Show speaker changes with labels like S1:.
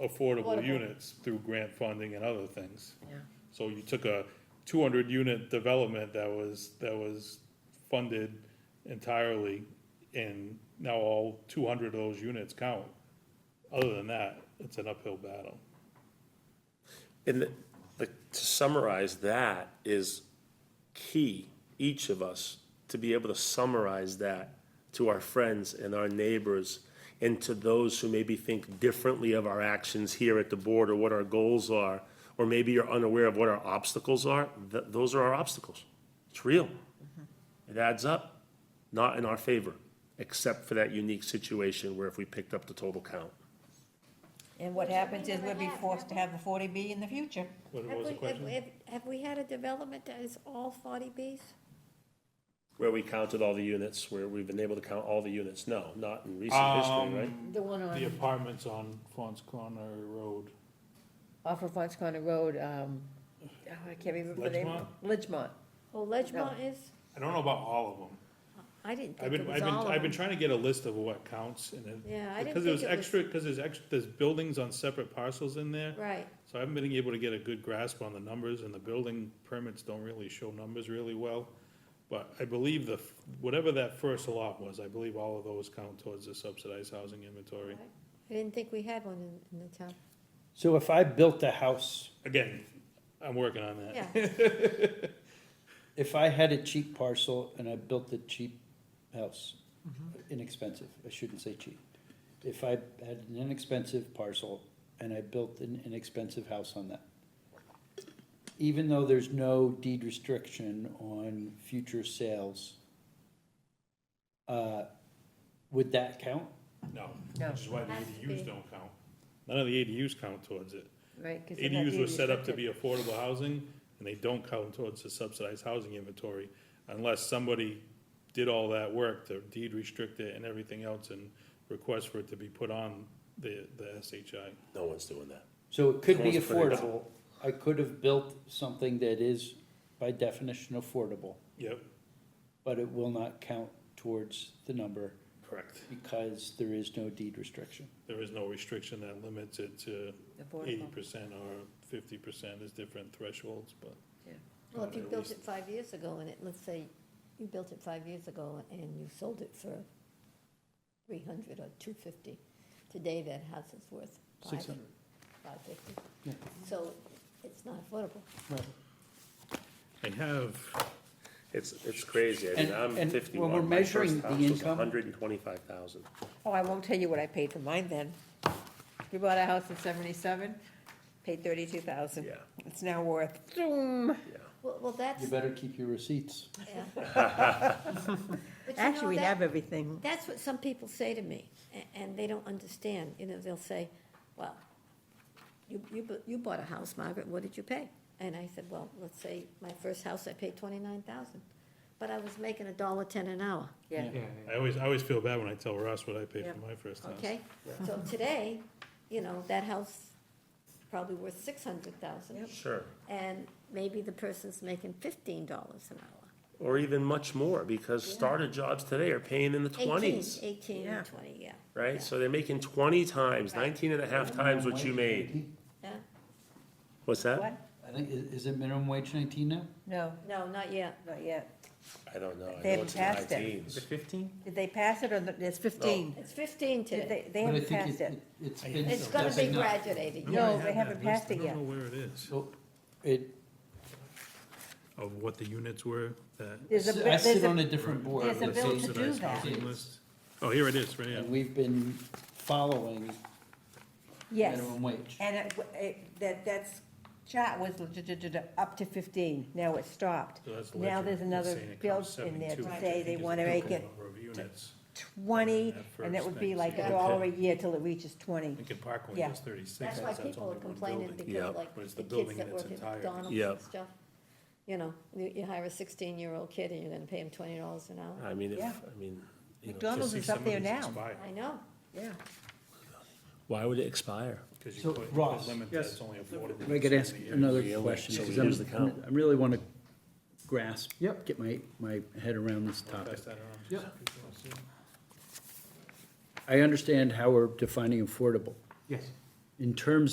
S1: affordable
S2: Affordable.
S1: units through grant funding and other things.
S2: Yeah.
S1: So you took a two hundred unit development that was, that was funded entirely, and now all two hundred of those units count. Other than that, it's an uphill battle.
S3: And the, the, to summarize that is key, each of us, to be able to summarize that to our friends and our neighbors and to those who maybe think differently of our actions here at the board or what our goals are, or maybe you're unaware of what our obstacles are, th- those are our obstacles. It's real. It adds up, not in our favor, except for that unique situation where if we picked up the total count.
S4: And what happens is we'll be forced to have a forty B in the future.
S1: What what
S5: Have
S1: was the
S5: we- have-
S1: question?
S5: have- Have we had a development that is all forty Bs?
S3: Where we counted all the units, where we've been able to count all the units, no, not in recent history, right?
S6: Um,
S2: The one
S1: The
S2: on,
S1: apartments on Fons Corner Road,
S2: off of Fons Corner Road, um, oh, I can't remember the name. Ledgemont.
S5: Oh, Ledgemont is?
S1: I don't know about all of them.
S5: I didn't
S1: I've
S5: think it
S1: been,
S5: was
S1: I've been,
S5: all of
S1: I've been
S5: them.
S1: trying to get a list of what counts and then.
S5: Yeah, I didn't
S1: Because there's
S5: think it was-
S1: extra, because there's extra, there's buildings on separate parcels in there.
S5: Right,
S1: So I haven't been able to get a good grasp on the numbers, and the building permits don't really show numbers really well. But I believe the, f- whatever that first lot was, I believe all of those count towards the subsidized housing inventory.
S5: I didn't think we had one in, in the town.
S6: So if I built a house,
S1: Again, I'm working on that.
S5: Yeah,
S6: if I had a cheap parcel and I built a cheap house, inexpensive, I shouldn't say cheap. If I had an inexpensive parcel and I built an inexpensive house on that, even though there's no deed restriction on future sales, uh, would that count?
S1: No,
S2: No.
S1: which is why the
S5: Has to
S1: ADUs
S5: be.
S1: don't count. None of the ADUs count towards it.
S2: Right, 'cause they're not
S1: ADUs
S2: being
S1: were set up to
S2: restricted.
S1: be affordable housing, and they don't count towards the subsidized housing inventory unless somebody did all that work, to deed restrict it and everything else, and request for it to be put on the, the SHI.
S3: No one's doing that.
S6: So it could be
S3: Someone's put it up.
S6: affordable. I could have built something that is by definition affordable.
S1: Yep,
S6: but it will not count towards the number
S1: correct.
S6: because there is no deed restriction.
S1: There is no restriction that limits it to eighty
S2: Affordable.
S1: percent or fifty percent is different thresholds, but.
S5: well, if you built it five years ago and it, let's say you built it five years ago and you sold it for three hundred or two fifty, today that house is worth five, five fifty.
S6: Yeah.
S5: So it's not affordable.
S1: I have,
S3: It's, it's crazy. I mean,
S6: And-
S3: I'm
S6: and
S3: fifty-one.
S6: when we're
S3: My first
S6: measuring the
S3: house was
S6: income-
S3: hundred and twenty-five thousand.
S2: Oh, I won't tell you what I paid for mine then. We bought a house in seventy-seven, paid thirty-two thousand.
S3: Yeah.
S2: It's now worth, zoom.
S3: Yeah.
S5: Well, well, that's,
S6: You better keep your receipts.
S5: yeah. But you know,
S2: Actually, we
S5: that-
S2: have everything.
S5: That's what some people say to me, a- and they don't understand, you know, they'll say, well, you, you, bu- you bought a house, Margaret, what did you pay? And I said, well, let's say my first house, I paid twenty-nine thousand, but I was making a dollar ten an hour,
S2: Yeah.
S1: I always, I always feel bad when I tell Ross what I paid
S2: Yep.
S1: for my first house.
S5: okay? So today, you know, that house probably worth six hundred thousand,
S3: Sure.
S5: and maybe the person's making fifteen dollars an hour.
S3: Or even much more, because starter jobs today are paying in the twenties,
S5: Eighteen,
S2: Yeah.
S5: eighteen, twenty, yeah,
S3: right? So they're making twenty times, nineteen and a half times what you made.
S5: yeah,
S3: What's that?
S2: What?
S6: I think, i- is it minimum wage nineteen now?
S2: No,
S5: no, not yet,
S2: not yet.
S3: I don't know. I
S2: They
S3: know
S2: haven't
S3: it's in the high
S2: passed it.
S3: teens.
S2: Did they pass it or, the- it's fifteen?
S5: it's fifteen
S2: Did
S5: today,
S2: They, they
S6: But I
S2: haven't
S6: think
S2: passed it.
S6: It's been.
S5: it's gonna be
S6: stepping up.
S5: graduated,
S1: I
S2: No,
S1: have
S2: they
S1: that
S2: haven't
S1: list.
S2: passed it
S1: I
S2: yet.
S1: don't know where it is,
S6: So it,
S1: of what the units were that.
S2: There's a,
S6: I
S2: there's
S6: sit on
S2: a,
S6: a different board.
S2: there's a
S6: with
S2: bill to do
S6: these
S1: Subsidized
S2: that.
S1: housing list. Oh, here it is, right here.
S6: And we've been following
S2: yes.
S6: minimum wage.
S2: And it, w- it, that, that's, chart was l- d- d- d- d- up to fifteen, now it stopped.
S1: So that's
S2: Now
S1: legend.
S2: there's
S1: It's
S2: another
S1: saying it
S2: bill
S1: costs
S2: in there
S1: 72,
S2: to
S1: which I
S2: say
S1: think
S2: they
S1: is
S2: wanna
S1: the
S2: make
S1: total
S2: it
S1: number of units.
S2: twenty,
S1: That
S2: and that would be
S1: first
S2: like a
S1: thing.
S2: dollar a year till it reaches twenty.
S1: Lincoln Park
S2: Yeah.
S1: one was thirty-six,
S5: That's why
S1: that's only
S5: people are
S1: one
S5: complaining
S1: building.
S3: Yeah.
S5: because like
S1: But it's
S5: the
S1: the building
S5: kids that
S1: in
S5: work
S1: its
S5: at
S1: entirety.
S5: McDonald's
S3: Yeah.
S5: and stuff. You know, you, you hire a sixteen-year-old kid and you're gonna pay him twenty dollars an hour.
S3: I mean, if,
S2: Yeah.
S3: I mean, you know,
S2: McDonald's
S1: See,
S2: is up there
S1: somebody's
S2: now,
S1: expired,
S5: I know.
S2: yeah.
S3: why would it expire?
S1: 'cause you
S6: So,
S1: put- you
S6: Ross.
S1: limit that it's only affordable
S6: If I could
S1: in
S6: ask
S1: so many years.
S6: another
S3: Yeah,
S6: question,
S3: so we
S6: because
S3: use the
S6: I'm,
S3: count.
S6: I really want to grasp, get my, my head around this topic.
S1: Pass that around.
S6: I understand how we're defining affordable.
S7: Yes,
S6: in terms